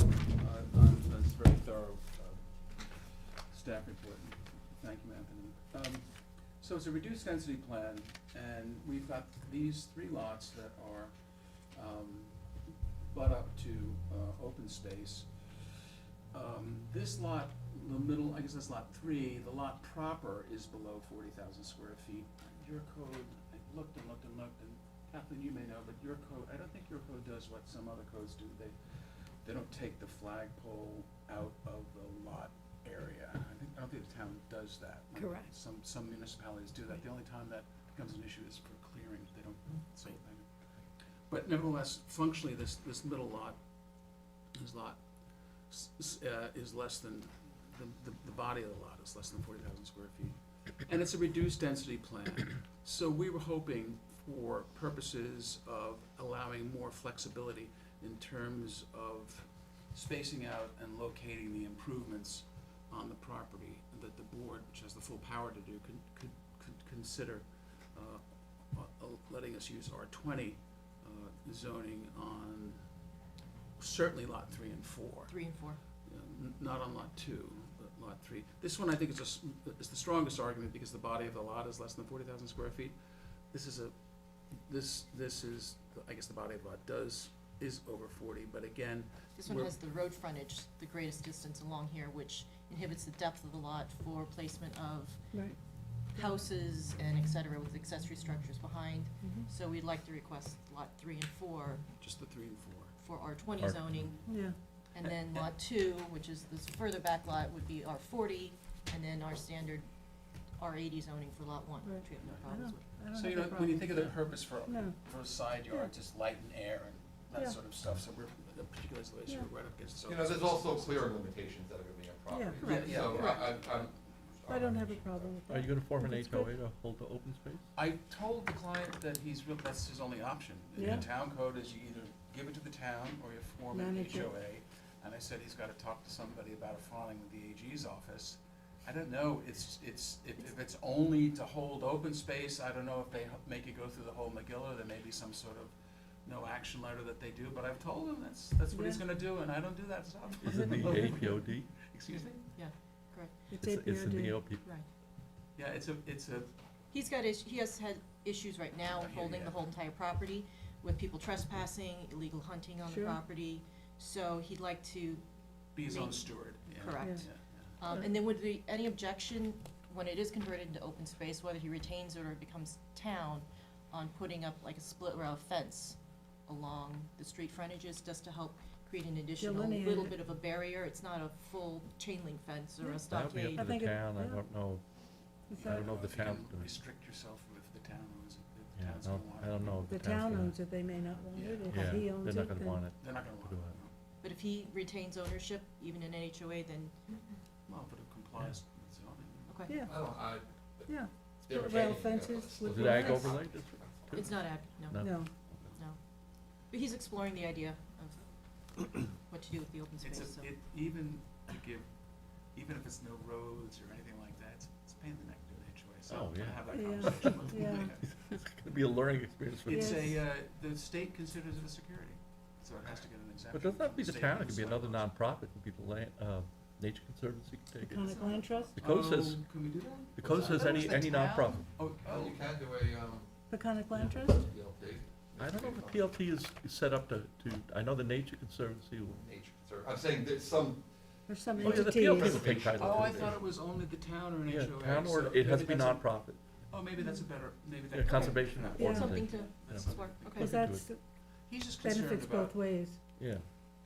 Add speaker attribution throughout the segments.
Speaker 1: Uh, staff report. Thank you, Anthony. Um, So it's a reduced density plan, and we've got these three lots that are um, butt up to uh, open space. Um, This lot, the middle, I guess that's lot three, the lot proper is below forty thousand square feet. Your code, I looked and looked and looked, and Kathleen, you may know, but your code, I don't think your code does what some other codes do. They, they don't take the flagpole out of the lot area. I think, I don't think the town does that.
Speaker 2: Correct.
Speaker 1: Some, some municipalities do that. The only time that becomes an issue is for clearing. They don't say anything. But nevertheless, functionally, this, this middle lot, this lot, s- s- uh, is less than, the- the, the body of the lot is less than forty thousand square feet. And it's a reduced density plan, so we were hoping for purposes of allowing more flexibility in terms of spacing out and locating the improvements on the property that the board, which has the full power to do, could, could, could consider, uh, uh, letting us use R twenty, uh, zoning on certainly lot three and four
Speaker 2: Three and four.
Speaker 1: n- not on lot two, but lot three. This one, I think, is a s is the strongest argument because the body of the lot is less than forty thousand square feet. This is a, this, this is, I guess the body of the lot does, is over forty, but again,
Speaker 2: This one
Speaker 1: We're-
Speaker 2: has the road frontage, the greatest distance along here, which inhibits the depth of the lot for placement of
Speaker 3: Right.
Speaker 2: houses and et cetera with accessory structures behind.
Speaker 1: Mm-hmm.
Speaker 2: So we'd like to request lot three and four
Speaker 1: just the three and four.
Speaker 2: for R twenty
Speaker 4: R-
Speaker 2: zoning.
Speaker 3: Yeah,
Speaker 2: And then lot two, which is this further back lot, would be R forty, and then our standard R eighty zoning for lot one, which we have no
Speaker 1: Right.
Speaker 3: I
Speaker 2: problems
Speaker 3: don't,
Speaker 2: with.
Speaker 3: I don't have a problem.
Speaker 1: So you know, when you think of the purpose for,
Speaker 3: No.
Speaker 1: for a side yard, just light and air and
Speaker 3: Yeah.
Speaker 1: that sort of stuff, so we're, the particular isolation, we're right up against.
Speaker 4: You know, there's also clear limitations that are gonna be on
Speaker 1: Yeah,
Speaker 4: property,
Speaker 1: yeah,
Speaker 4: so
Speaker 1: yeah.
Speaker 4: I, I- I'm.
Speaker 3: I don't have a problem with that.
Speaker 5: Are you gonna form an
Speaker 3: That's
Speaker 5: HOA
Speaker 3: good.
Speaker 5: to hold the open space?
Speaker 1: I told the client that he's, real- that's his only option. The
Speaker 3: Yeah.
Speaker 1: town code is you either give it to the town or you form an
Speaker 3: Manage it.
Speaker 1: HOA. And I said he's gotta talk to somebody about a filing with the AG's office. I don't know, it's, it's, if, if it's only to hold open space, I don't know if they h- make you go through the whole McGill, or there may be some sort of no action letter that they do, but I've told him that's, that's what he's
Speaker 3: Yeah.
Speaker 1: gonna do, and I don't do that stuff.
Speaker 5: Is it the APOD?
Speaker 1: Excuse me?
Speaker 3: It's
Speaker 5: It's it's in the
Speaker 3: APRD.
Speaker 5: OP.
Speaker 2: Right.
Speaker 1: Yeah, it's a, it's a,
Speaker 2: He's got is, he has had issues right now
Speaker 1: I hear
Speaker 2: holding
Speaker 1: ya.
Speaker 2: the whole entire property with people trespassing, illegal hunting on the
Speaker 3: Sure.
Speaker 2: property. So he'd like to,
Speaker 1: be his own
Speaker 2: Me.
Speaker 1: steward, yeah.
Speaker 2: Correct.
Speaker 1: Yeah,
Speaker 2: um,
Speaker 3: Yeah.
Speaker 2: and then would be any objection when it is converted into open space, whether he retains it or it becomes town, on putting up like a split rail fence along the street frontages just to help create an additional
Speaker 3: Delineate
Speaker 2: little
Speaker 3: it.
Speaker 2: bit of a barrier. It's not a full chain link fence or
Speaker 3: Yeah.
Speaker 2: a
Speaker 5: That'll be
Speaker 2: stockade.
Speaker 5: up to
Speaker 3: think
Speaker 5: the
Speaker 3: it-
Speaker 5: town, I
Speaker 3: yeah.
Speaker 5: don't know,
Speaker 3: Is
Speaker 5: I
Speaker 3: that-
Speaker 5: don't know if the
Speaker 1: if you
Speaker 5: town's
Speaker 1: can
Speaker 5: gonna,
Speaker 1: restrict yourself if the town owns it, if the
Speaker 5: yeah,
Speaker 1: town's
Speaker 5: I
Speaker 1: gonna
Speaker 5: don't,
Speaker 1: want it.
Speaker 5: I don't know if
Speaker 3: The
Speaker 5: the
Speaker 3: town
Speaker 5: town's
Speaker 3: owns it, they may not want it,
Speaker 5: gonna.
Speaker 3: if he
Speaker 5: Yeah,
Speaker 3: owns
Speaker 5: they're
Speaker 3: it,
Speaker 5: not gonna want
Speaker 3: then,
Speaker 5: it.
Speaker 1: They're not gonna want it.
Speaker 5: Do
Speaker 1: no.
Speaker 2: But if he retains ownership, even in an HOA, then,
Speaker 1: Well, but it complies with zoning.
Speaker 2: okay,
Speaker 3: yeah,
Speaker 4: I don't, I.
Speaker 3: yeah,
Speaker 4: they're
Speaker 3: Rail
Speaker 4: retaining that
Speaker 3: fences
Speaker 4: place.
Speaker 3: would
Speaker 5: Is it
Speaker 3: be
Speaker 5: ag
Speaker 3: nice.
Speaker 5: overlay district? too?
Speaker 2: it's not ag, no.
Speaker 5: No.
Speaker 3: no,
Speaker 2: But he's exploring the idea of what to do with the open
Speaker 1: It's
Speaker 2: space, so.
Speaker 1: a, it, even to give, even if it's no roads or anything like that, it's, it's a pain in the neck to do an HOA, so
Speaker 5: Oh,
Speaker 1: I'm gonna
Speaker 5: yeah.
Speaker 1: have that
Speaker 3: Yeah,
Speaker 1: conversation with them.
Speaker 3: yeah.
Speaker 5: It's gonna be a learning experience for,
Speaker 3: Yeah.
Speaker 1: It's a,
Speaker 3: Yes.
Speaker 1: uh, the state considers it a security, so it has to get an exemption.
Speaker 5: but doesn't that
Speaker 1: from
Speaker 5: be the
Speaker 1: state
Speaker 5: town, it could be another
Speaker 1: legislation.
Speaker 5: nonprofit, it could be the land, uh, Nature Conservancy could take it.
Speaker 3: Conic Land Trust,
Speaker 5: The code says,
Speaker 1: Oh, can we do that?
Speaker 5: the code
Speaker 1: I
Speaker 5: says
Speaker 1: thought it
Speaker 5: any,
Speaker 1: was the
Speaker 5: any
Speaker 1: town.
Speaker 5: nonprofit.
Speaker 1: Oh,
Speaker 4: Well,
Speaker 1: oh,
Speaker 4: you can do a, um,
Speaker 3: the Conic Land
Speaker 4: Yeah.
Speaker 3: Trust,
Speaker 4: PLT.
Speaker 5: I don't know if
Speaker 4: Nature
Speaker 5: PLT is is set up to, to, I know the Nature Conservancy will.
Speaker 4: conserv- I'm saying there's some,
Speaker 3: or some
Speaker 5: Oh, yeah, the
Speaker 3: entity.
Speaker 5: PLT will take
Speaker 4: Preservation.
Speaker 5: title
Speaker 1: oh, I
Speaker 5: to it.
Speaker 1: thought it was only the town or an
Speaker 5: Yeah,
Speaker 1: HOA,
Speaker 5: town
Speaker 1: so
Speaker 5: or, it has to
Speaker 1: maybe
Speaker 5: be
Speaker 1: that's a-
Speaker 5: nonprofit,
Speaker 1: Oh, maybe that's a better, maybe
Speaker 5: yeah,
Speaker 1: that.
Speaker 5: conservation
Speaker 1: Yeah.
Speaker 5: organization.
Speaker 2: Something to
Speaker 1: That's
Speaker 5: Yeah.
Speaker 2: explore, okay.
Speaker 3: Because
Speaker 5: Look into
Speaker 3: that's,
Speaker 1: He's just concerned
Speaker 3: benefits
Speaker 1: about,
Speaker 3: both ways,
Speaker 5: Yeah,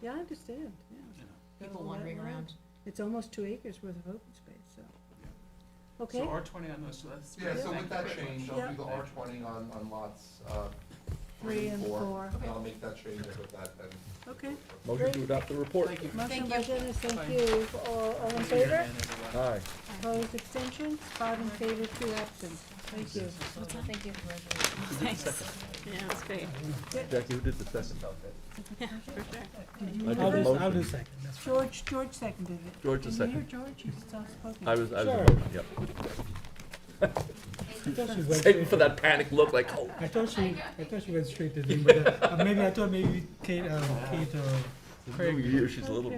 Speaker 3: yeah, I understand, yeah,
Speaker 1: you know,
Speaker 2: People wandering around.
Speaker 3: it's almost two acres worth of open space, so.
Speaker 1: Yeah.
Speaker 3: Okay,
Speaker 1: So R twenty on those, so that's.
Speaker 4: yeah,
Speaker 1: great.
Speaker 4: so
Speaker 1: Thank
Speaker 4: with
Speaker 1: you
Speaker 4: that
Speaker 1: very much.
Speaker 4: change, I'll
Speaker 3: Yeah.
Speaker 4: do the R twenty on, on lots, uh,
Speaker 3: three and four,
Speaker 4: And I'll make that change with that then.
Speaker 3: Okay.
Speaker 5: motion to adopt the report.
Speaker 1: Thank you.
Speaker 3: motion
Speaker 2: Thank
Speaker 3: by
Speaker 2: you.
Speaker 3: Dennis,
Speaker 1: Fine.
Speaker 3: thank you, all, all in
Speaker 1: Thank you,
Speaker 3: favor?
Speaker 1: Ann, everyone.
Speaker 5: Aye.
Speaker 3: Opposed, extensions, five in favor, two absent, thank you.
Speaker 2: Thank you.
Speaker 6: Yeah, it's great.
Speaker 5: Jackie, who did the second?
Speaker 3: Did you
Speaker 5: I did
Speaker 3: reverse?
Speaker 5: motion.
Speaker 7: I'll do second, that's fine.
Speaker 3: George, George seconded it.
Speaker 5: George the
Speaker 3: Can you
Speaker 5: second.
Speaker 3: hear George? He's soft-spoken.
Speaker 5: I was, I was,
Speaker 7: Sure.
Speaker 5: voting, yep.
Speaker 7: I thought she went
Speaker 5: Saving for
Speaker 7: straight-
Speaker 5: that panic look, like, oh.
Speaker 7: I thought she, I thought she went straight to Dean, but uh, maybe, I thought maybe Kate, um, Kate, uh, Craig
Speaker 5: New year, she's a little